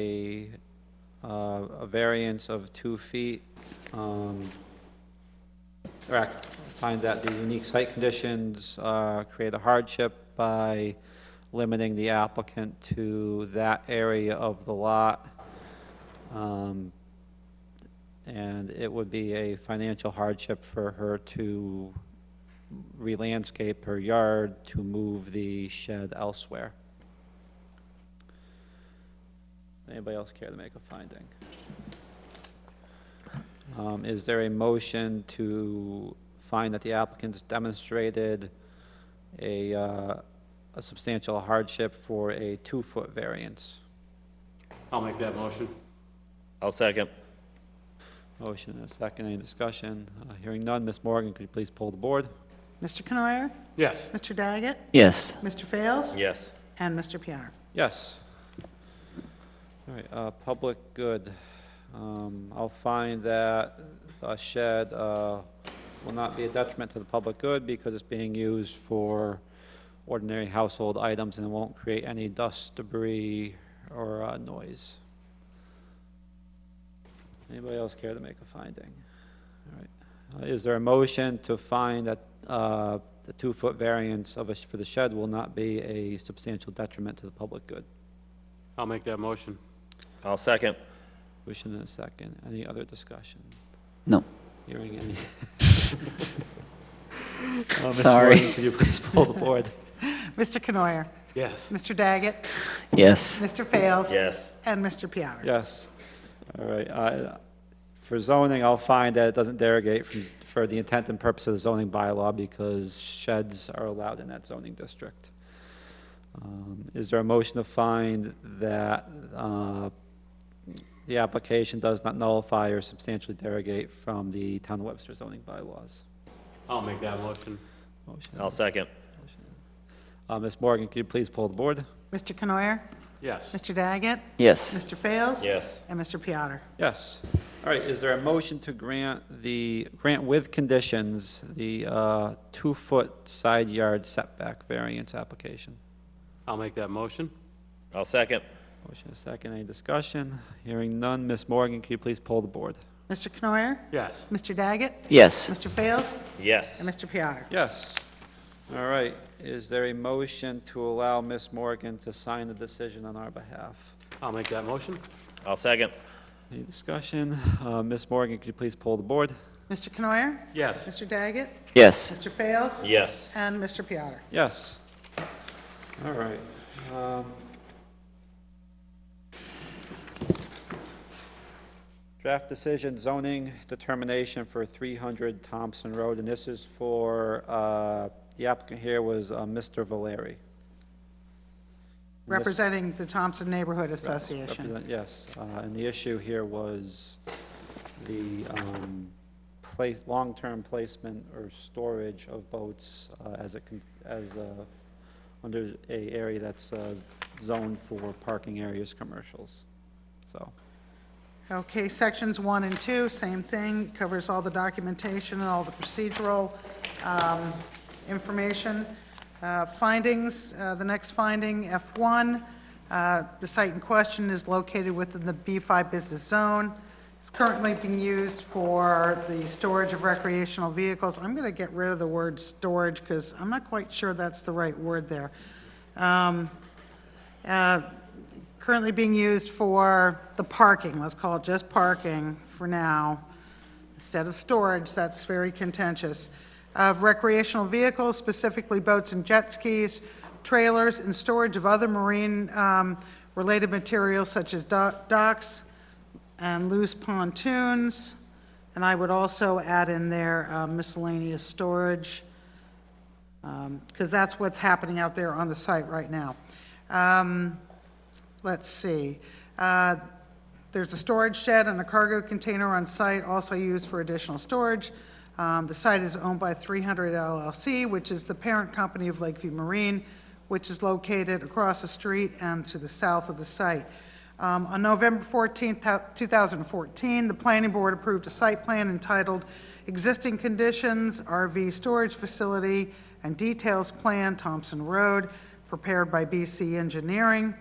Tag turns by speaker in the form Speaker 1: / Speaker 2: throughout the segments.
Speaker 1: a, uh, a variance of two feet. um, Or act- find that the unique site conditions uh, create a hardship by limiting the applicant to that area of the lot. Um, And it would be a financial hardship for her to re-landscape her yard to move the shed elsewhere. Anybody else care to make a finding? Um, Is there a motion to find that the applicant's demonstrated a uh, a substantial hardship for a two-foot variance?
Speaker 2: I'll make that motion.
Speaker 3: I'll second.
Speaker 1: Motion and a second, any discussion? Uh, Hearing none, Ms. Morgan, could you please pull the board?
Speaker 4: Mr. Canoyer?
Speaker 2: Yes.
Speaker 4: Mr. Daggett?
Speaker 5: Yes.
Speaker 4: Mr. Fails?
Speaker 3: Yes.
Speaker 4: And Mr. Piar.
Speaker 1: Yes. All right, uh, public good. Um, I'll find that a shed, uh, will not be a detriment to the public good because it's being used for ordinary household items and it won't create any dust, debris, or, uh, noise. Anybody else care to make a finding? All right. Uh, Is there a motion to find that uh, the two-foot variance of a, sh- for the shed will not be a substantial detriment to the public good?
Speaker 2: I'll make that motion.
Speaker 3: I'll second.
Speaker 1: Motion and a second. Any other discussion?
Speaker 5: No.
Speaker 1: Hearing any? Uh, Ms.
Speaker 5: Sorry.
Speaker 1: Morgan, Could you please pull the board?
Speaker 4: Mr. Canoyer?
Speaker 2: Yes.
Speaker 4: Mr. Daggett?
Speaker 5: Yes.
Speaker 4: Mr. Fails?
Speaker 3: Yes.
Speaker 4: And Mr. Piar.
Speaker 1: Yes. All right. I- For zoning, I'll find that it doesn't derogate from, s- for the intent and purpose of the zoning bylaw because sheds are allowed in that zoning district. Um, Is there a motion to find that uh, the application does not nullify or substantially derogate from the town of Webster zoning bylaws?
Speaker 2: I'll make that motion.
Speaker 1: Motion.
Speaker 3: I'll second.
Speaker 1: Uh, Ms. Morgan, could you please pull the board?
Speaker 4: Mr. Canoyer?
Speaker 2: Yes.
Speaker 4: Mr. Daggett?
Speaker 5: Yes.
Speaker 4: Mr. Fails?
Speaker 3: Yes.
Speaker 4: And Mr. Piattar.
Speaker 1: Yes. All right, is there a motion to grant the, grant with conditions, the uh, two-foot side yard setback variance application?
Speaker 2: I'll make that motion.
Speaker 3: I'll second.
Speaker 1: Motion and a second, any discussion? Hearing none, Ms. Morgan, can you please poll the board?
Speaker 4: Mr. Canoyer?
Speaker 2: Yes.
Speaker 4: Mr. Daggett?
Speaker 5: Yes.
Speaker 4: Mr. Fails?
Speaker 3: Yes.
Speaker 4: And Mr. Piattar.
Speaker 1: Yes. All right, is there a motion to allow Ms. Morgan to sign the decision on our behalf?
Speaker 2: I'll make that motion.
Speaker 3: I'll second.
Speaker 1: Any discussion? Uh, Ms. Morgan, could you please poll the board?
Speaker 4: Mr. Canoyer?
Speaker 2: Yes.
Speaker 4: Mr. Daggett?
Speaker 5: Yes.
Speaker 4: Mr. Fails?
Speaker 3: Yes.
Speaker 4: And Mr. Piattar.
Speaker 1: Yes. All right. um, Draft decision zoning determination for 300 Thompson Road, and this is for, uh, the applicant here was uh, Mr. Valeri. And this-
Speaker 4: Representing the Thompson Neighborhood Association.
Speaker 1: represent- Yes, uh, and the issue here was the um, place, long-term placement or storage of boats uh, as a, con- as a, under a area that's uh, zoned for parking areas, commercials, so.
Speaker 4: Okay, sections one and two, same thing, covers all the documentation and all the procedural um, information. Uh, Findings, uh, the next finding, F1, uh, the site in question is located within the B5 business zone. It's currently being used for the storage of recreational vehicles. I'm going to get rid of the word "storage" because I'm not quite sure that's the right word there. Um, uh, currently being used for the parking, let's call it just parking for now, instead of storage, that's very contentious, of recreational vehicles, specifically boats and jet skis, trailers, and storage of other marine-related materials such as do- docks and loose pontoons, and I would also add in there uh, miscellaneous storage because that's what's happening out there on the site right now. Um, Let's see, Uh, there's a storage shed and a cargo container on site, also used for additional storage. Um, The site is owned by 300 LLC, which is the parent company of Lakeview Marine, which is located across the street and to the south of the site. Um, On November 14, 2014, the planning board approved a site plan entitled Existing Conditions, RV Storage Facility, and Details Plan, Thompson Road, prepared by BC Engineering.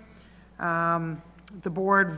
Speaker 4: Um, the board